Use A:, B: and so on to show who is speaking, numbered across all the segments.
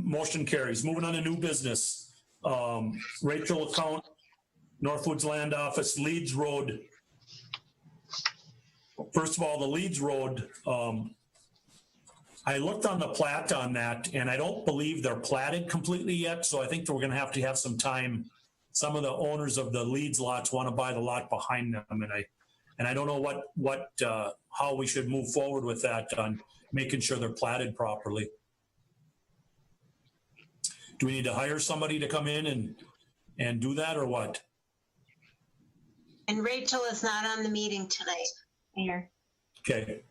A: Motion carries. Moving on to new business. Um, Rachel account, Northwoods Land Office, Leeds Road. First of all, the Leeds Road, um, I looked on the plat on that and I don't believe they're platted completely yet, so I think that we're gonna have to have some time. Some of the owners of the Leeds lots want to buy the lot behind them and I, and I don't know what, what, uh, how we should move forward with that on making sure they're platted properly. Do we need to hire somebody to come in and, and do that or what?
B: And Rachel is not on the meeting tonight, Mayor.
A: Okay.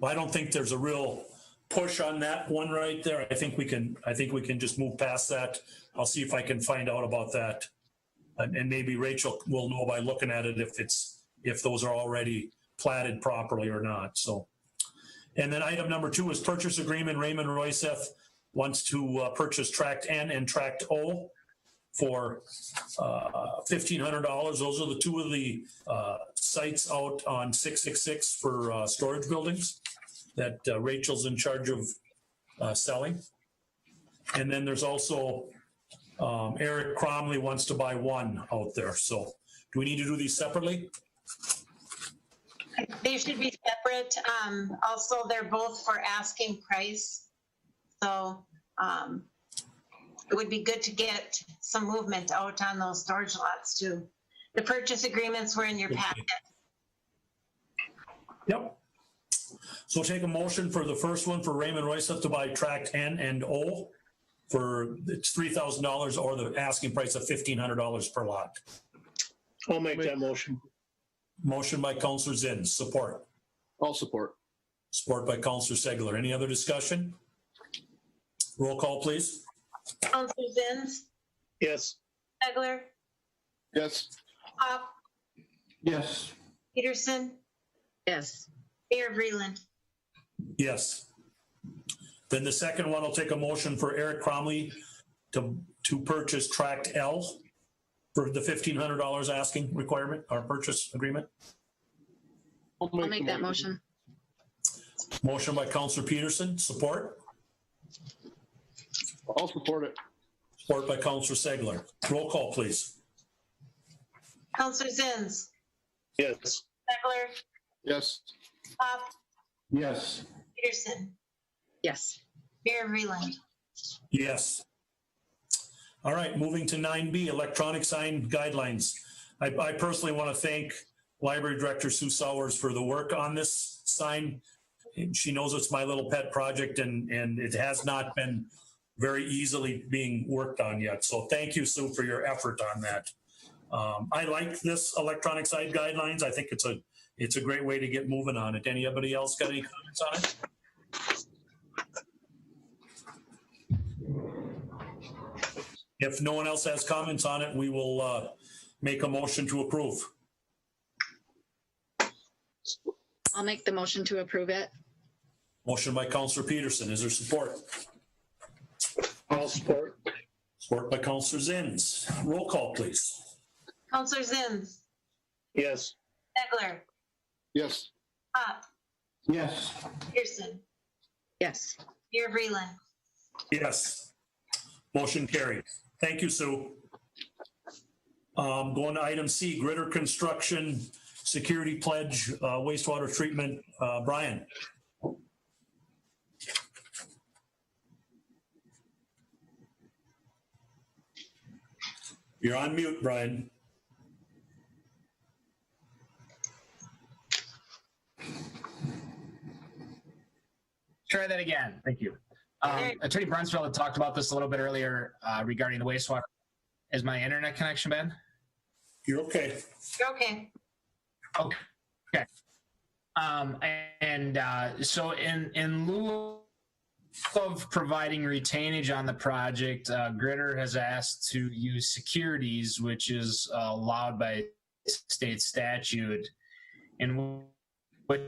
A: Well, I don't think there's a real push on that one right there. I think we can, I think we can just move past that. I'll see if I can find out about that. And, and maybe Rachel will know by looking at it if it's, if those are already platted properly or not, so. And then item number two is purchase agreement. Raymond Royceff wants to uh, purchase tract N and tract O for uh, fifteen hundred dollars. Those are the two of the uh, sites out on six six six for uh, storage buildings that uh, Rachel's in charge of uh, selling. And then there's also um, Eric Cromley wants to buy one out there. So do we need to do these separately?
B: They should be separate. Um, also, they're both for asking price. So, um, it would be good to get some movement out on those storage lots too. The purchase agreements were in your packet.
A: Yep. So take a motion for the first one for Raymond Royce to buy tract N and O for it's three thousand dollars or the asking price of fifteen hundred dollars per lot.
C: I'll make that motion.
A: Motion by Counselor Zinn, support.
C: I'll support.
A: Support by Counselor Segler. Any other discussion? Roll call, please.
B: Counselor Zins,
C: Yes.
B: Segler,
C: Yes.
B: Pop,
C: Yes.
B: Peterson,
D: Yes,
B: Mayor Breland.
A: Yes. Then the second one will take a motion for Eric Cromley to, to purchase tract L for the fifteen hundred dollars asking requirement or purchase agreement.
D: I'll make that motion.
A: Motion by Counselor Peterson, support.
C: I'll support it.
A: Support by Counselor Segler. Roll call, please.
B: Counselor Zins,
C: Yes.
B: Segler,
C: Yes.
B: Pop,
C: Yes.
B: Peterson,
D: Yes,
B: Mayor Breland.
A: Yes. All right, moving to nine B, electronic sign guidelines. I, I personally want to thank Library Director Sue Sowers for the work on this sign. And She knows it's my little pet project and, and it has not been very easily being worked on yet. So thank you, Sue, for your effort on that. Um, I like this electronic sign guidelines. I think it's a, it's a great way to get moving on it. Anybody else got any comments on it? If no one else has comments on it, we will uh, make a motion to approve.
D: I'll make the motion to approve it.
A: Motion by Counselor Peterson. Is there support?
C: I'll support.
A: Support by Counselor Zins. Roll call, please.
B: Counselor Zins,
C: Yes.
B: Segler,
C: Yes.
B: Pop,
C: Yes.
B: Peterson,
D: Yes,
B: Mayor Breland.
A: Yes. Motion carried. Thank you, Sue. Um, Going to item C, Gritter Construction Security Pledge uh, Wastewater Treatment. Uh, Brian? You're on mute, Brian.
E: Try that again. Thank you. Um,
B: Okay.
E: Attorney Brunsfeld had talked about this a little bit earlier uh, regarding the wastewater. Is my internet connection bad?
A: You're okay.
B: You're okay.
E: Um, and uh, so, in in lieu of providing retainage on the project, uh, Gritter has asked to use securities, which is uh, allowed by state statute, in which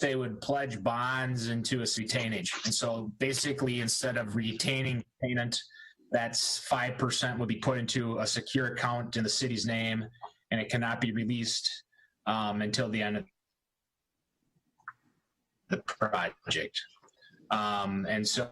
E: they would pledge bonds into a retainage. And so, basically, instead of retaining payment, that's five percent would be put into a secure account in the city's name, and it cannot be released um, until the end of the project. Um, and so